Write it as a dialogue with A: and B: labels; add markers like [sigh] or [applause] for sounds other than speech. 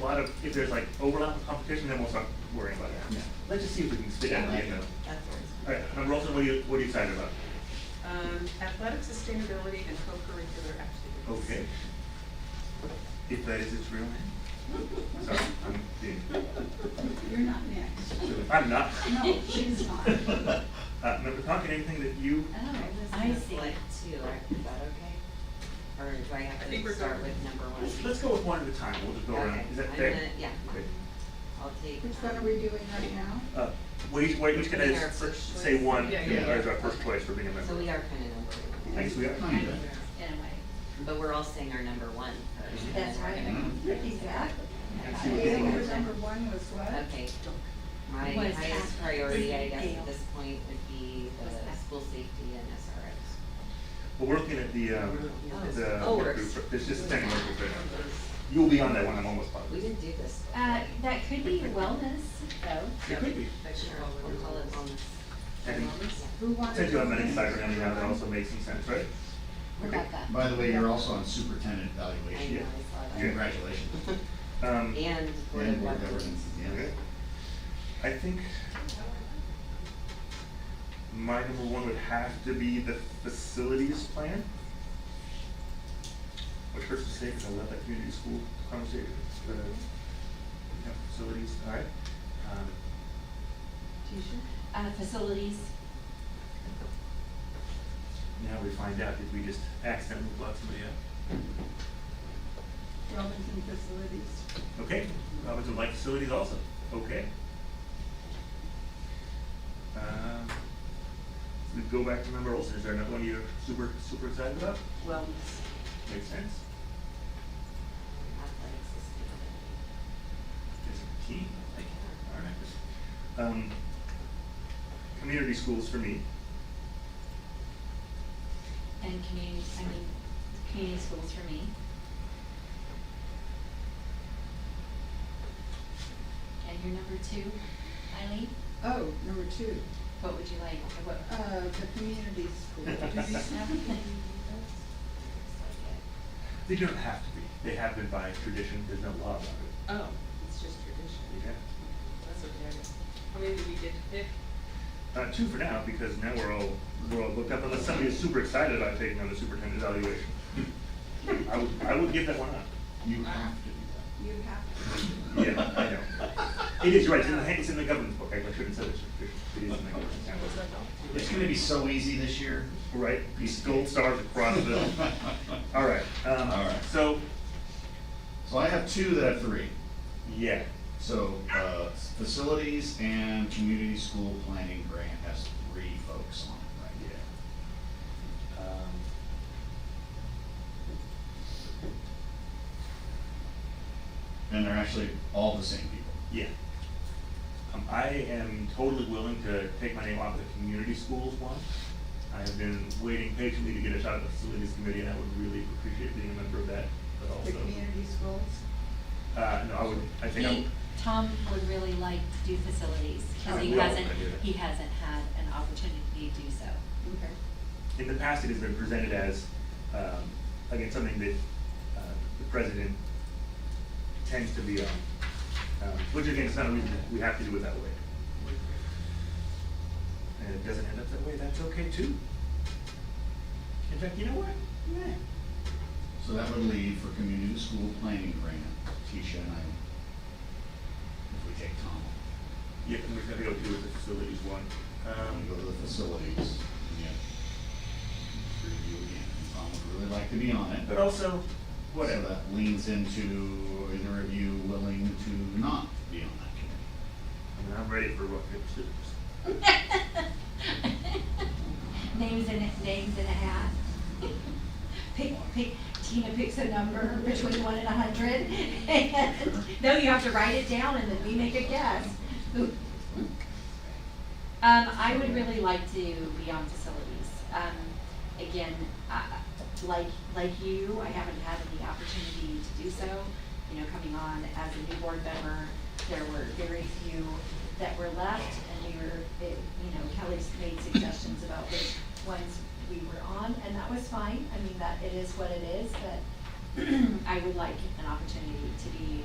A: lot of, if there's like overlap of competition, then we'll start worrying about that. Let's just see if we can stick
B: Yeah.
A: that in there.
B: That's
A: All right, Member Olson, what are you, what are you excited about?
B: Um, athletic sustainability and co-curricular activities.
A: Okay. If that is its real name. Sorry, I'm being,
C: You're not next.
A: I'm [laughs] not.
C: No, she's not.
A: Uh, Member Conkin, anything that you,
D: Oh, I see it too, is that okay? Or do I
B: I
D: have
B: think we're
D: to start
B: good.
D: with number one?
A: let's, let's go with one at a time, we'll just go around,
D: Okay,
A: is that
D: I'm
A: fair?
D: gonna- Yeah,
A: Okay.
D: I'll take.
C: Which one are
D: um,
C: we doing right now?
A: Uh, we, we're just gonna
D: We are
A: s-
D: first
A: say
D: choice.
A: one,
B: Yeah, yeah,
A: as our first choice for being a member.
D: So we are kind of number one.
A: I guess we are.
D: Kind of,
E: in a way.
D: But we're all saying our number one first. and
E: That's
D: we're gonna
E: right.
D: go-
C: Exactly.
A: Let's see what
C: Yeah,
A: people-
C: your number one was what?
D: Okay, my
E: What is
D: highest
E: that?
D: priority, I guess,
E: Deal.
D: at this point would be
E: What's
D: the
E: that?
D: school safety and SROs.
A: Well, we're looking at the, um,
D: Oh,
A: the,
D: oh,
A: work
D: we're-
A: group. there's just ten work group right now. You'll be on that one, I'm almost
D: We
A: positive.
D: didn't do this.
E: Uh, that could be wellness, though.
A: It could be.
B: That should
D: Sure,
B: all
D: we'll call it wellness.
A: And
D: Wellness?
C: Who wanted?
A: since you have
C: to
A: medic
C: finish
A: cyber and
C: number
A: that
C: one?
A: also makes some sense, right?
E: Rebecca.
F: By the way, you're also on superintendent
D: I
F: evaluation.
D: know, I saw that.
F: Congratulations.
D: [laughs]
A: Um,
D: And Board
F: And
D: of
F: board
D: Governors.
F: governance, yes.
A: okay. I think my number one would have to be the facilities plan. Which hurts to say, because I love that community school conversation, uh, yeah, facilities, all right. Um,
E: Uh, facilities.
A: Now we find out, did we just accidentally block somebody out?
C: Robinson Facilities.
A: Okay, Robinson Light Facilities also, okay. Um, We go back to member Olson, is there another one you're super, super excited about?
B: Wellness.
A: Makes sense,
D: Athletic sustainability.
A: it's a key, I like it, all right. Um, Community schools for me,
E: And community, I mean, community schools for me. And your number two, Eileen,
C: Oh, number two,
E: what would you like, what?
C: uh, the community school. Do we have
D: Uh,
C: any?
A: they don't have to be, they have been by tradition, there's no law about it.
B: Oh, it's just tradition. That's okay. I guess. How many do we get to pick?
A: Uh, two for now, because now we're all, we're all booked up, unless somebody is super excited about taking on the superintendent evaluation. I would, I would give that one up.
F: You have to do
C: You have,
A: Yeah, I know. It is, right, it's in the, it's in the governance book, I shouldn't say this, it is in the governance handbook.
F: that. It's gonna be so easy this year.
A: Right, these gold stars across
F: [laughs]
A: the, all right,
F: All
A: um,
F: right.
A: so,
F: So I have two that have three.
A: yeah,
F: So, uh, facilities and community school planning grant has three folks on it right now.
A: yeah. Um,
F: And they're actually all the same people.
A: Yeah. Um, I am totally willing to take my name off the community schools one. I have been waiting patiently to get a shot at the facilities committee, and I would really appreciate being a member of that, but
C: the
A: also.
C: community schools.
A: Uh, no, I would, I think I would.
E: He, Tom would really like to do facilities,
A: I
E: cause he
A: will, I
E: hasn't,
A: do that.
E: he hasn't had an opportunity to do so.
C: Okay.
A: in the past, it has been presented as, um, again, something that, uh, the president tends to be on. Um, which again, is not a reason that we have to do it that way. And it doesn't end up that way, that's okay too. In fact, you know what? Yeah.
F: So that would leave for community school planning grant, Tisha and I, if we take Tom.
A: Yeah, and we're gonna go do with the facilities one.
F: And go
A: Um,
F: to the facilities. Yeah. Review again, Tom would really like to be on it.
A: but also,
F: So
A: whatever.
F: that leans into, is a review willing to not be on that committee?
A: I mean, I'm ready for what it is.
E: Names in, names in a hat. Pick, pick, Tina picks a number between one and a hundred. [laughs] No, you have to write it down and then we make a guess. Um, I would really like to be on facilities. Um, again, uh, like, like you, I haven't had the opportunity to do so. You know, coming on as a new board member, there were very few that were left and we were, it- you know, Kelly's made suggestions about which ones we were on and that was [clears throat] fine. I mean, that, it is what it is, but I would like an opportunity to be